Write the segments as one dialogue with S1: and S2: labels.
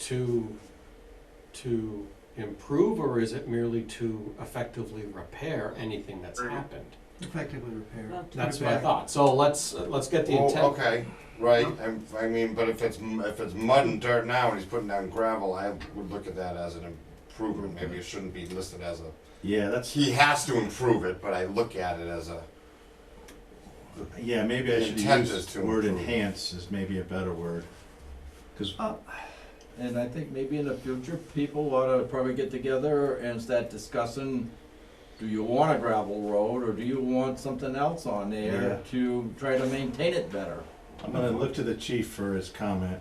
S1: to, to improve, or is it merely to effectively repair anything that's
S2: Right.
S1: happened?
S3: effectively repaired.
S4: Well,
S1: That's what I thought, so let's, let's get the
S5: Well,
S1: intent.
S5: Oh, okay, right, I'm- I mean, but if it's, m- if it's mud and dirt now and he's putting down gravel, I would look at that as an improvement, maybe it shouldn't be listed as a,
S6: Yeah, that's
S5: he has to improve it, but I look at it as a,
S6: yeah. Maybe I
S5: The
S6: should
S5: intent
S6: use
S5: is
S6: the
S5: to
S6: word
S5: improve.
S6: enhance is maybe a better word. Because
S7: Uh, And I think maybe in the future, people ought to probably get together and start discussing, do you want a gravel road or do you want something else on
S6: Yeah.
S7: there to try to maintain it better?
S6: I'm gonna look to the chief for his comment.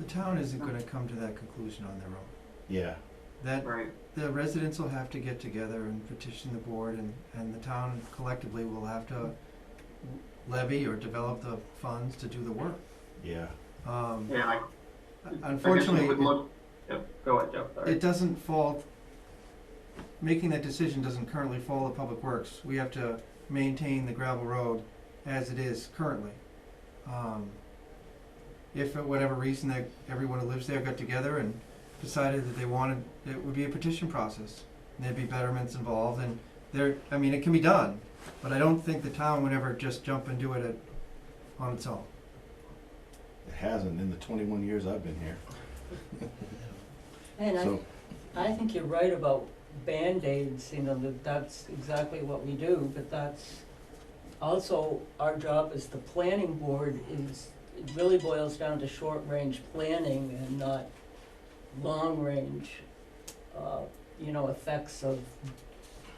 S3: The town isn't gonna come to that conclusion on their own.
S6: Yeah.
S3: That,
S2: Right.
S3: the residents will have to get together and petition the board and, and the town collectively will have to levy or develop the funds to do the work.
S6: Yeah.
S3: Um,
S2: Yeah, I, I guess we
S3: unfortunately,
S2: would
S3: it-
S2: look, yep, go ahead, Jeff, sorry.
S3: it doesn't fall, making that decision doesn't currently fall to Public Works. We have to maintain the gravel road as it is currently. Um, If for whatever reason that everyone who lives there got together and decided that they wanted, it would be a petition process. And there'd be betterments involved and there, I mean, it can be done, but I don't think the town would ever just jump and do it at- on its own.
S6: It hasn't in the 21 years I've been here.
S4: And I,
S6: So
S4: I think you're right about Band-Aids, you know, that that's exactly what we do, but that's also our job as the planning board is, it really boils down to short-range planning and not long-range, uh, you know, effects of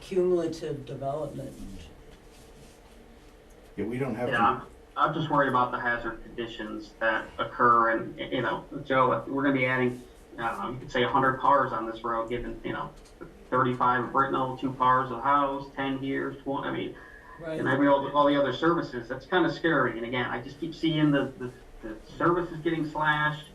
S4: cumulative development.
S6: yeah, we don't have
S2: Yeah, I'm, I'm just worried about the hazard conditions that occur and, you know, Joe, we're gonna be adding, I don't know, you could say hundred cars on this road, given, you know, thirty-five Britnell, two cars, a house, ten years, one, I mean,
S4: Right.
S2: and I mean, all, the- all the other services, that's kinda scary, and again, I just keep seeing the, the, the services getting slashed.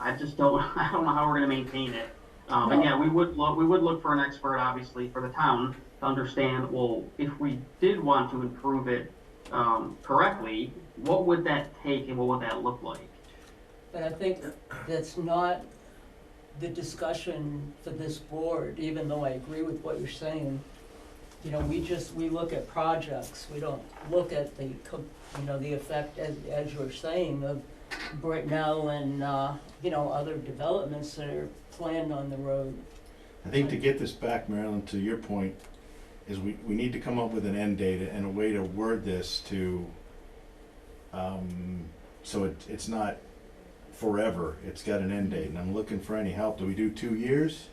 S2: I just don't, I don't know how we're gonna maintain it. Um, and yeah, we would look, we would look for an expert, obviously, for the town to understand, well, if we did want to improve it, um, correctly, what would that take and what would that look like?
S4: But I think that's not the discussion for this board, even though I agree with what you're saying. You know, we just, we look at projects, we don't look at the, co- you know, the effect, as, as you're saying, of Britnell and, uh, you know, other developments that are planned on the road.
S6: I think to get this back, Marilyn, to your point, is we, we need to come up with an end date and a way to word this to, um, so it, it's not forever, it's got an end date, and I'm looking for any help, do we do two years?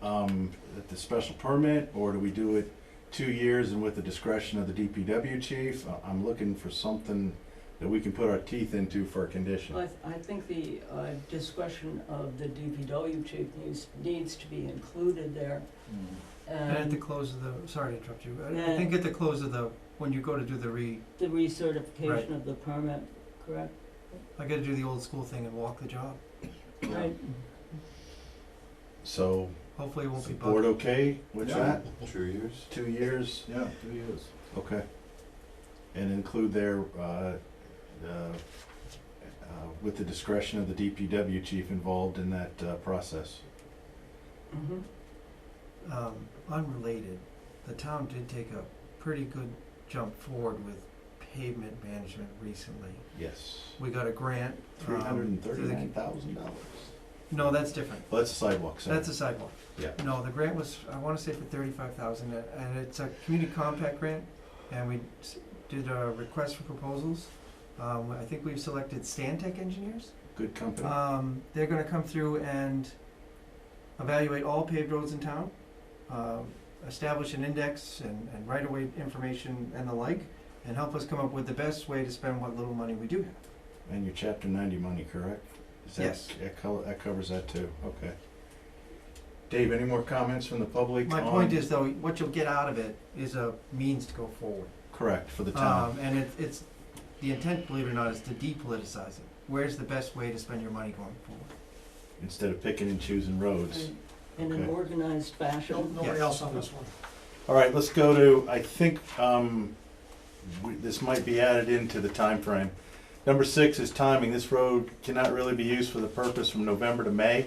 S6: Um, at the special permit, or do we do it two years and with the discretion of the DPW chief? I- I'm looking for something that we can put our teeth into for a condition.
S4: I, I think the uh, discretion of the DPW chief needs, needs to be included there.
S3: And at the
S4: And
S3: close of the, sorry to interrupt you, I- I
S4: Um, Yeah.
S3: think at the close of the, when you go to do the re,
S4: the
S3: Right.
S4: recertification of the permit, correct?
S3: I gotta do the old school thing and walk the job.
S4: Right.
S6: So,
S3: Hopefully it won't
S6: is
S3: be
S6: the
S3: bugged.
S6: board okay with
S7: Yeah.
S6: that?
S5: two years.
S6: Two years?
S7: Yeah, two years.
S6: Okay. And include their, uh, uh, uh, with the discretion of the DPW chief involved in that uh, process.
S4: Mm-hmm.
S3: Um, unrelated, the town did take a pretty good jump forward with pavement management recently.
S6: Yes.
S3: We got a grant. um,
S6: Three hundred and
S3: through the-
S6: thirty-nine thousand dollars.
S3: No, that's different.
S6: Well, that's a sidewalk, so.
S3: That's a sidewalk.
S6: Yeah.
S3: No, the grant was, I wanna say for thirty-five thousand, and it's a community compact grant, and we s- did a request for proposals. Um, I think we've selected Stantec engineers.
S6: Good company.
S3: Um, they're gonna come through and evaluate all paved roads in town, um, establish an index and, and right-of-way information and the like, and help us come up with the best way to spend what little money we do have.
S6: And your chapter ninety money, correct? Is that-
S3: Yes.
S6: That col- that covers that too, okay. Dave, any more comments from the public?
S3: My
S6: on-
S3: point is though, what you'll get out of it is a means to go forward.
S6: Correct, for the town.
S3: Um, and it, it's, the intent, believe it or not, is to depoliticize it. Where's the best way to spend your money going forward?
S6: Instead of picking and choosing roads.
S4: In in an
S6: Okay.
S4: organized fashion.
S3: Nobody else on
S6: this one. All right, let's go to, I think, um, we- this might be added into the time frame. Number six is timing. This road cannot really be used for the purpose from November to May.